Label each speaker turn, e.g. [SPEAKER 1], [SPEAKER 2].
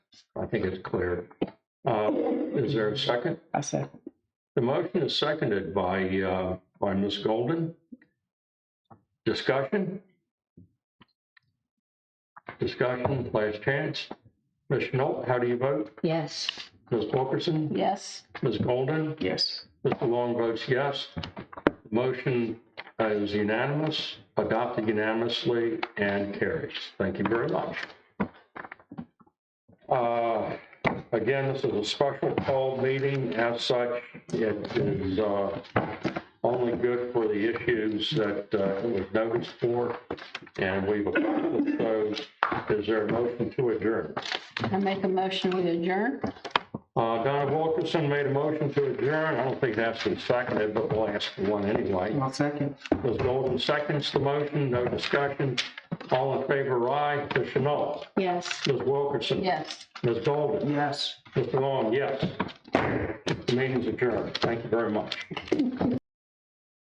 [SPEAKER 1] I think it's clear. Uh, Is there a second?
[SPEAKER 2] I second.
[SPEAKER 1] The motion is seconded by, uh, by Ms. Golden. Discussion? Discussion, last chance. Ms. Schnolt, how do you vote?
[SPEAKER 3] Yes.
[SPEAKER 1] Ms. Wilkerson?
[SPEAKER 3] Yes.
[SPEAKER 1] Ms. Golden?
[SPEAKER 2] Yes.
[SPEAKER 1] Mr. Long votes yes. Motion uh, is unanimous, adopted unanimously, and carries. Thank you very much. Uh, Again, this is a special call meeting. As such, it is uh, only good for the issues that uh, it was noticed for, and we've accomplished those. Is there a motion to adjourn?
[SPEAKER 3] I make a motion, we adjourn?
[SPEAKER 1] Uh, Donna Wilkerson made a motion to adjourn. I don't think that's been seconded, but we'll ask for one anyway.
[SPEAKER 2] I'll second.
[SPEAKER 1] Ms. Golden seconds the motion, no discussion. All in favor, aye. Ms. Chenault?
[SPEAKER 3] Yes.
[SPEAKER 1] Ms. Wilkerson?
[SPEAKER 3] Yes.
[SPEAKER 1] Ms. Golden?
[SPEAKER 2] Yes.
[SPEAKER 1] Mr. Long, yes. Meeting's adjourned. Thank you very much.